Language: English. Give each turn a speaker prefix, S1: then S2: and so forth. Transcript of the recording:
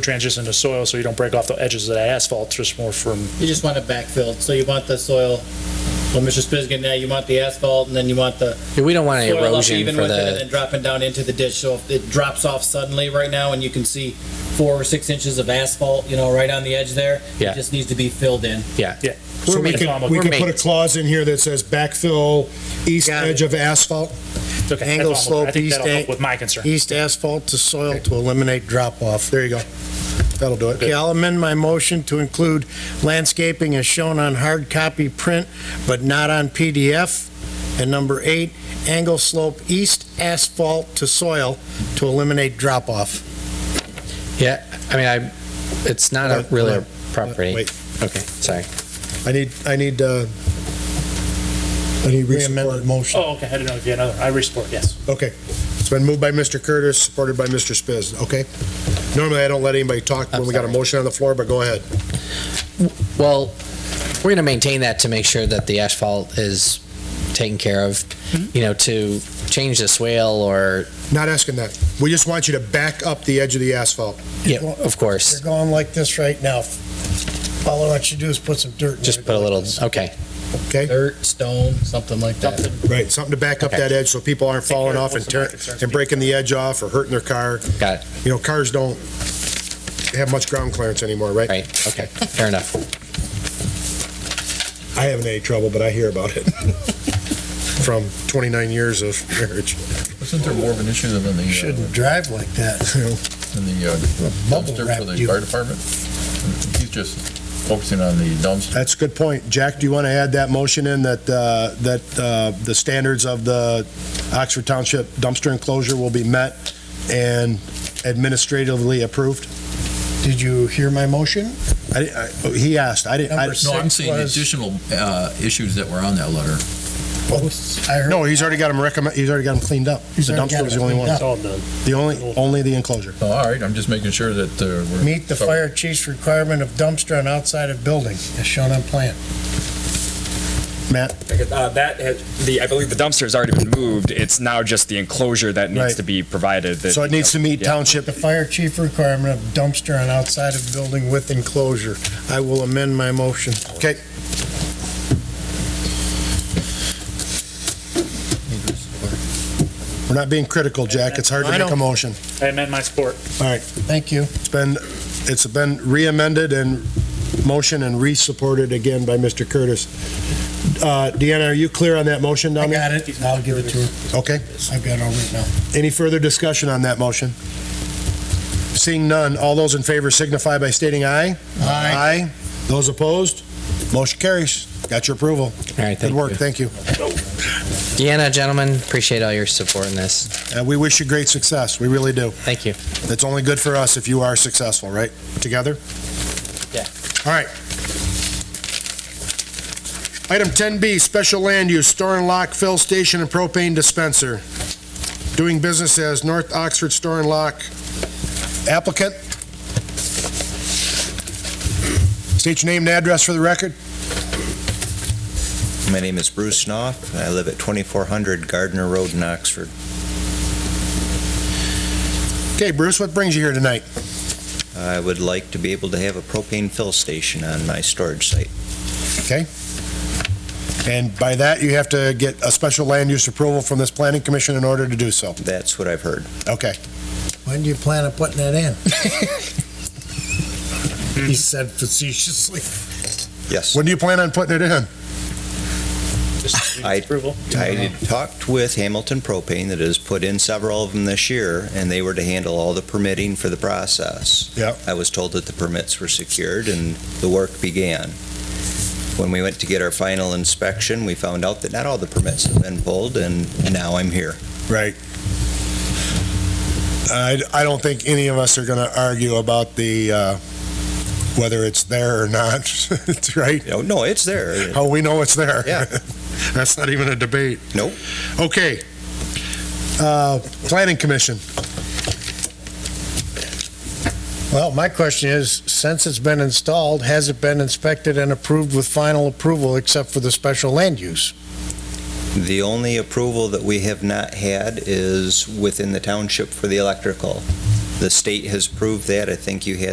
S1: transition to soil so you don't break off the edges of that asphalt, just more from,
S2: You just want it backfilled, so you want the soil, well, Mr. Spizgan, now you want the asphalt, and then you want the
S3: Yeah, We don't want any
S2: soil up
S3: erosion
S2: even
S3: for
S2: with it, and then
S3: the,
S2: dropping down into the ditch, so if it drops off suddenly right now, and you can see four or six inches of asphalt, you know, right on the edge there,
S3: Yeah.
S2: it just needs to be filled in.
S3: yeah.
S1: yeah.
S3: We're
S4: So we
S3: making-
S4: could, we
S3: we're
S4: could put a
S3: making-
S4: clause in here that says backfill east
S5: Got it.
S4: edge of asphalt.
S1: Okay, that's
S5: Angle
S1: all I'm-
S5: slope,
S1: I think that'll
S5: east e-
S1: help
S5: ang-
S1: with my concern.
S5: East asphalt to soil to eliminate drop off. There you go.
S4: That'll do
S5: Okay,
S4: it.
S5: I'll amend my motion to include landscaping as shown on hard copy print, but not on PDF. And number eight, angle slope east asphalt to soil to eliminate drop off.
S3: Yeah, I mean, I, it's not a
S4: Hold on,
S3: really
S4: hold
S3: a property.
S4: Wait,
S3: Okay, sorry.
S4: I need, I need, uh, I need re-support.
S5: Re-amended motion.
S1: Oh, okay, I didn't know if you had another, I re-support, yes.
S4: Okay. It's been moved by Mr. Curtis, supported by Mr. Spiz, okay? Normally, I don't let anybody talk
S3: I'm
S4: when we got a
S3: sorry.
S4: motion on the floor, but go ahead.
S3: Well, we're going to maintain that to make sure that the asphalt is taken care of.
S4: Mm-hmm.
S3: You know, to change the swale or,
S4: Not asking that. We just want you to back up the edge of the asphalt.
S3: yeah, of
S5: They're
S3: course,
S5: going like this right now. All I want you to do is put some dirt in there.
S3: just put a little, okay.
S2: Dirt, stone, something like that.
S4: Right. Something to back up
S3: Okay.
S4: that edge so people aren't falling
S1: care of
S4: off and
S1: most of my
S4: tearing,
S1: concerns.
S4: and breaking the edge off or hurting their car.
S3: Got it.
S4: You know, cars don't have much ground clearance anymore, right?
S3: Right, okay, fair enough.
S4: I haven't had any trouble, but I hear about it from 29 years of marriage.
S6: Isn't there more of an issue than in the,
S5: Shouldn't drive like that.
S6: uh, in the uh,
S5: Bubble
S6: dumpster
S5: wrap
S6: for the
S5: you.
S6: fire department? He's just focusing on the dumpster.
S4: That's a good point. Jack, do you want to add that motion in that, uh, that uh, the standards of the Oxford Township dumpster enclosure will be met and administratively approved?
S5: Did you hear my motion?
S4: I- I- He asked, I didn't, I-
S5: Number
S6: No, I'm
S5: six
S6: seeing
S5: was-
S6: additional uh, issues that were on that letter.
S5: Oh, I heard.
S4: no, he's already got them recommend, he's already got them cleaned up. The
S5: He's already got
S4: dumpster was the
S5: it
S4: only
S5: cleaned
S4: one.
S5: up.
S1: It's all done.
S4: The only, only the enclosure.
S6: Oh, All right, I'm just making sure that uh, we're.
S5: Meet the
S6: so-
S5: fire chief's requirement of dumpster on outside of building as shown on plan.
S4: Matt?
S7: Uh, that has, the I believe the dumpster has already been moved. It's now just the enclosure that needs
S4: Right.
S7: to be provided. That,
S4: So it needs to meet
S7: Yeah.
S4: township,
S5: The fire chief requirement of dumpster on outside of building with enclosure. I will amend my motion.
S4: okay. We're not being critical, Jack, it's hard to
S5: I
S4: make a
S5: know.
S4: motion.
S1: I amend my support.
S5: Thank you.
S4: It's been, it's been re-amended and motion and re-supported again by Mr. Curtis. Uh, Deanna, are you clear on that motion
S5: I
S4: down there?
S5: got it. I'll give it to her.
S4: Okay.
S5: I've got it all written out.
S4: Any further discussion on that motion? Seeing none, all those in favor signify by stating aye. Aye. Those opposed? Motion carries. Got your approval.
S3: All right,
S4: Good
S3: thank
S4: work,
S3: you.
S4: thank you.
S3: Deanna, gentlemen, appreciate all your support in this.
S4: And we wish you great success, we really do.
S3: Thank you.
S4: It's only good for us if you are successful, right? Together?
S3: Yeah.
S4: All right. Item 10B, special land use, store and lock, fill station and propane dispenser. Doing business as North Oxford Store and Lock. Applicant? State your name and address for the record.
S8: My name is Bruce Knopf, and I live at 2400 Gardner Road in Oxford.
S4: Okay, Bruce, what brings you here tonight?
S8: I would like to be able to have a propane fill station on my storage site.
S4: And by that, you have to get a special land use approval from this planning commission in order to do so.
S8: That's what I've heard.
S4: Okay.
S5: When do you plan on putting that in? He said facetiously.
S8: Yes.
S4: When do you plan on putting it in?
S1: Just
S8: I-
S1: approval.
S8: I had talked with Hamilton Propane that has put in several of them this year, and they were to handle all the permitting for the process.
S4: Yeah.
S8: I was told that the permits were secured and the work began. When we went to get our final inspection, we found out that not all the permits had been pulled, and now I'm here.
S4: Right. I, I don't think any of us are going to argue about the, uh, whether it's there or not, It's right?
S8: You know, No, it's there.
S4: How we know it's there.
S8: Yeah.
S4: That's not even a debate.
S8: Nope.
S4: Okay. Uh, Planning Commission.
S5: Well, my question is, since it's been installed, has it been inspected and approved with final approval except for the special land use?
S8: The only approval that we have not had is within the township for the electrical. The state has proved that. I think you had